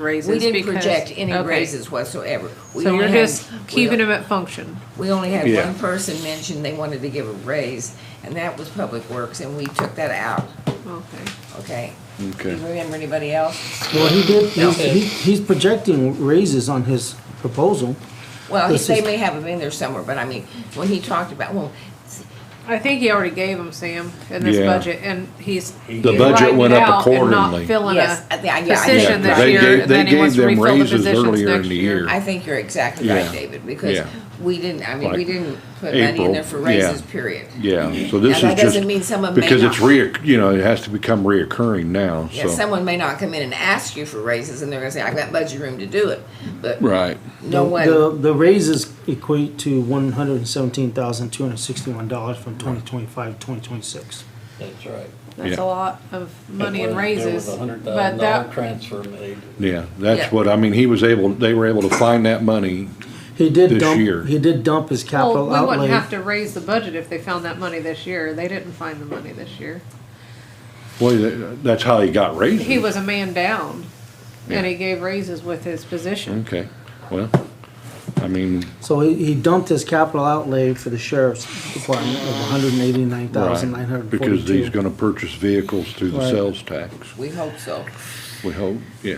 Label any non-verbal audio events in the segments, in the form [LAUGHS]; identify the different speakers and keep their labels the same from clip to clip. Speaker 1: raises.
Speaker 2: We didn't
Speaker 1: because-
Speaker 2: project any
Speaker 1: okay.
Speaker 2: raises whatsoever. We
Speaker 1: So
Speaker 2: only
Speaker 1: you're
Speaker 2: had-
Speaker 1: just keeping them at function.
Speaker 2: We only had
Speaker 3: Yeah.
Speaker 2: one person mention they wanted to give a raise, and that was Public Works, and we took that out,
Speaker 1: Okay.
Speaker 2: okay?
Speaker 3: Okay.
Speaker 2: You remember anybody else?
Speaker 4: Well, he did, he's, he- he's projecting raises on his proposal.
Speaker 2: Well, he-
Speaker 4: This
Speaker 2: they
Speaker 4: is-
Speaker 2: may have them in there somewhere, but I mean, when he talked about, well,
Speaker 1: I think he already gave them, Sam, in this
Speaker 3: Yeah.
Speaker 1: budget, and he's.
Speaker 3: The budget
Speaker 1: writing
Speaker 3: went
Speaker 1: it
Speaker 3: up
Speaker 1: out and not
Speaker 3: accordingly.
Speaker 1: Filling
Speaker 2: Yes,
Speaker 1: a
Speaker 2: I thi- I- yeah, I
Speaker 1: position
Speaker 2: think you're
Speaker 1: this
Speaker 2: right. They
Speaker 1: year,
Speaker 3: gave-
Speaker 1: and then
Speaker 3: they
Speaker 1: he wants to
Speaker 3: gave them
Speaker 1: refill the
Speaker 3: raises
Speaker 1: positions
Speaker 3: earlier in
Speaker 1: next
Speaker 3: the
Speaker 1: year.
Speaker 3: year.
Speaker 2: I think you're exactly right,
Speaker 3: Yeah.
Speaker 2: David, because
Speaker 3: Yeah.
Speaker 2: we didn't, I mean, we
Speaker 3: Like
Speaker 2: didn't put money in
Speaker 3: April,
Speaker 2: there for raises,
Speaker 3: yeah.
Speaker 2: period.
Speaker 3: Yeah, so this is
Speaker 2: Now, that
Speaker 3: just.
Speaker 2: doesn't mean someone may
Speaker 3: Because it's
Speaker 2: not-
Speaker 3: reoc, you know, it has to become reoccurring now,
Speaker 2: Yeah,
Speaker 3: so.
Speaker 2: someone may not come in and ask you for raises, and they're gonna say, I've got budget room to do it, but
Speaker 3: Right,
Speaker 2: no
Speaker 4: The,
Speaker 2: one,
Speaker 4: the raises equate to one hundred and seventeen thousand, two hundred and sixty-one dollars from twenty twenty-five, twenty twenty-six.
Speaker 5: That's right.
Speaker 1: That's a
Speaker 3: Yeah.
Speaker 1: lot of money in
Speaker 5: There was-
Speaker 1: raises,
Speaker 5: There was a hundred
Speaker 1: but
Speaker 5: thousand dollar
Speaker 1: that,
Speaker 5: transfer made.
Speaker 3: yeah,
Speaker 2: Yeah.
Speaker 3: that's what, I mean, he was able, they were able to find that money,
Speaker 4: He did
Speaker 3: This
Speaker 4: dump,
Speaker 3: year.
Speaker 4: he did dump his
Speaker 1: well,
Speaker 4: capital
Speaker 1: we wouldn't
Speaker 4: outlay.
Speaker 1: have to raise the budget if they found that money this year. They didn't find the money this year.
Speaker 3: boy, that- that's how he got raises.
Speaker 1: He was a man down,
Speaker 3: Yeah.
Speaker 1: and he gave raises with his position.
Speaker 3: Okay, well, I mean,
Speaker 4: So he, he dumped his capital outlay for the sheriff's department of one hundred and eighty-nine thousand, nine
Speaker 3: right,
Speaker 4: hundred and
Speaker 3: because he's
Speaker 4: forty-two.
Speaker 3: gonna purchase vehicles through the
Speaker 4: Right.
Speaker 3: sales tax,
Speaker 2: we hope so.
Speaker 3: we hope, yeah.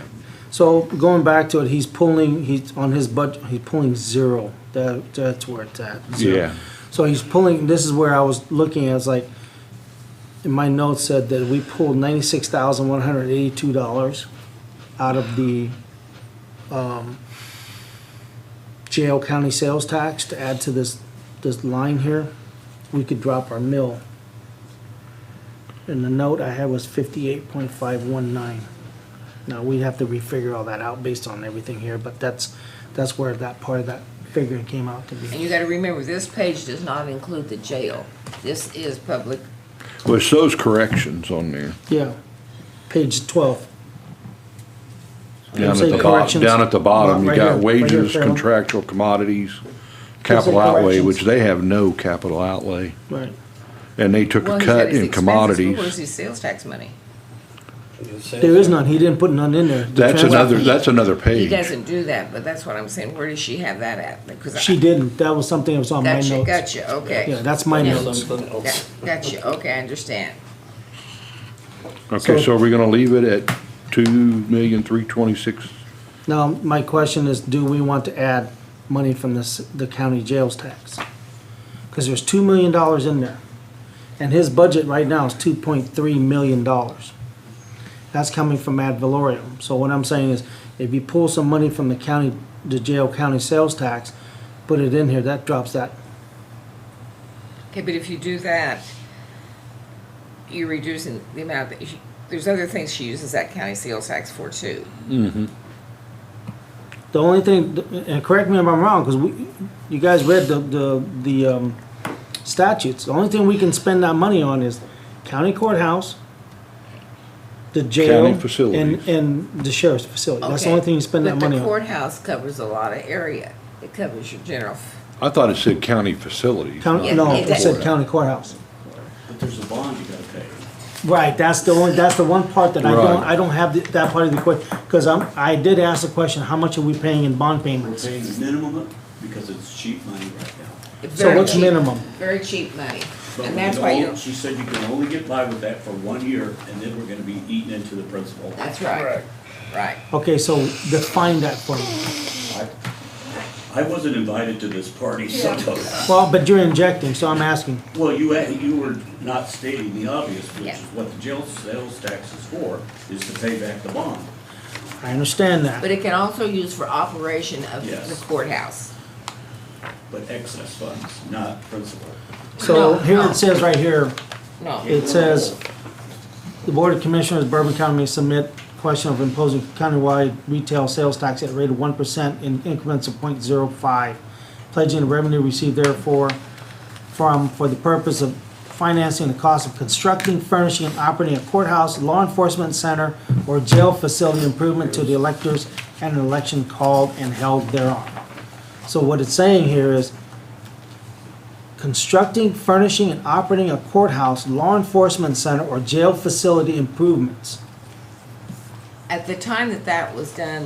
Speaker 4: So going back to it, he's pulling, he's on his budget, he's pulling zero. That, that's where it's at. zero.
Speaker 3: Yeah,
Speaker 4: So he's pulling, this is where I was looking, I was like, in my notes said that we pulled ninety-six thousand one hundred eighty-two dollars out of the, um, jail county sales tax to add to this, this line here. We could drop our mill. And the note I had was fifty-eight point five one nine. Now, we'd have to refigure all that out based on everything here, but that's, that's where that part of that figuring came out to be.
Speaker 2: And you gotta remember, this page does not include the jail. This is public,
Speaker 3: well, it's those corrections on there,
Speaker 4: Yeah, page twelve.
Speaker 3: down
Speaker 4: say
Speaker 3: at the bottom,
Speaker 4: corrections.
Speaker 3: down at the bottom, you
Speaker 4: Right
Speaker 3: got
Speaker 4: here, right here,
Speaker 3: wages,
Speaker 4: Carol.
Speaker 3: contractual commodities, capital outlay,
Speaker 4: corrections.
Speaker 3: which they have no capital outlay,
Speaker 4: Right.
Speaker 3: and they took
Speaker 2: well,
Speaker 3: a
Speaker 2: he's got
Speaker 3: cut
Speaker 2: his
Speaker 3: in
Speaker 2: expenses,
Speaker 3: commodities.
Speaker 2: but where's his sales tax money?
Speaker 4: There is none, he didn't put none in there. The
Speaker 3: That's
Speaker 4: trans-
Speaker 3: another, that's another
Speaker 2: He
Speaker 3: page.
Speaker 2: doesn't do that, but that's what I'm saying, where does she have that at? Because I-
Speaker 4: She didn't, that was something that was on my
Speaker 2: Gotcha,
Speaker 4: notes.
Speaker 2: gotcha, okay.
Speaker 4: Yeah, that's my
Speaker 2: Yeah.
Speaker 4: notes.
Speaker 5: Something
Speaker 2: Got-
Speaker 5: else.
Speaker 2: Gotcha, okay, I understand.
Speaker 3: Okay, so are we gonna leave it at two million, three twenty-six?
Speaker 4: Now, my question is, do we want to add money from this, the county jails tax? Cause there's two million dollars in there, and his budget right now is two point three million dollars. That's coming from ad valorem, so what I'm saying is, if you pull some money from the county, the jail county sales tax, put it in here, that drops that
Speaker 2: Okay, but if you do that, you're reducing the amount that, she- there's other things she uses that county sales tax for too.
Speaker 4: The only thing, and correct me if I'm wrong, because we, you guys read the, the, the um, statutes. The only thing we can spend that money on is county courthouse, the jail.
Speaker 3: County facilities.
Speaker 4: And, and the sheriff's facility. That's the only
Speaker 2: Okay,
Speaker 4: thing you spend that money
Speaker 2: But the
Speaker 4: on.
Speaker 2: courthouse covers a lot of area. It covers your general,
Speaker 3: I thought it said county facilities.
Speaker 4: County,
Speaker 2: Yeah,
Speaker 4: no,
Speaker 2: it
Speaker 4: it said
Speaker 2: does.
Speaker 4: county courthouse.
Speaker 6: But there's a bond you gotta pay.
Speaker 4: Right, that's the only, that's the one part that I don't,
Speaker 3: Right.
Speaker 4: I don't have the- that part of the question. Because I'm, I did ask the question, how much are we paying in bond
Speaker 6: We're
Speaker 4: payments?
Speaker 6: paying minimum because it's cheap money right now.
Speaker 2: it's
Speaker 4: So
Speaker 2: very
Speaker 4: what's
Speaker 2: cheap,
Speaker 4: minimum?
Speaker 2: Very cheap money.
Speaker 6: But
Speaker 2: And
Speaker 6: we
Speaker 2: that's
Speaker 6: can
Speaker 2: why you,
Speaker 6: only-
Speaker 2: don't-
Speaker 6: She said you can only get by with that for one year and then we're gonna be eaten into the principal.
Speaker 2: that's right, right.
Speaker 4: Okay, so define that for me.
Speaker 6: I- I wasn't invited to this party, so.
Speaker 4: Well, but you're injecting, so I'm asking.
Speaker 6: [LAUGHS] Well, you, had- you were not stating the obvious, which
Speaker 2: Yeah.
Speaker 6: is what the jail sales tax is for, is to pay back the bond.
Speaker 4: I understand that.
Speaker 2: But it can also use for operation of
Speaker 6: Yes.
Speaker 2: the courthouse.
Speaker 6: But excess funds, not principal.
Speaker 4: So
Speaker 2: No,
Speaker 4: here
Speaker 2: no.
Speaker 4: it says right here,
Speaker 2: No,
Speaker 4: it says, the Board of Commissioners, Bourbon County may submit question of imposing countywide retail sales tax at a rate of one percent in increments of 0.05, pledging the revenue received therefore from, for the purpose of financing the cost of constructing, furnishing, and operating a courthouse, law enforcement center, or jail facility improvement to the electors and an election called and held thereon. So what it's saying here is, constructing, furnishing, and operating a courthouse, law enforcement center, or jail facility improvements.
Speaker 2: at the time that that was done,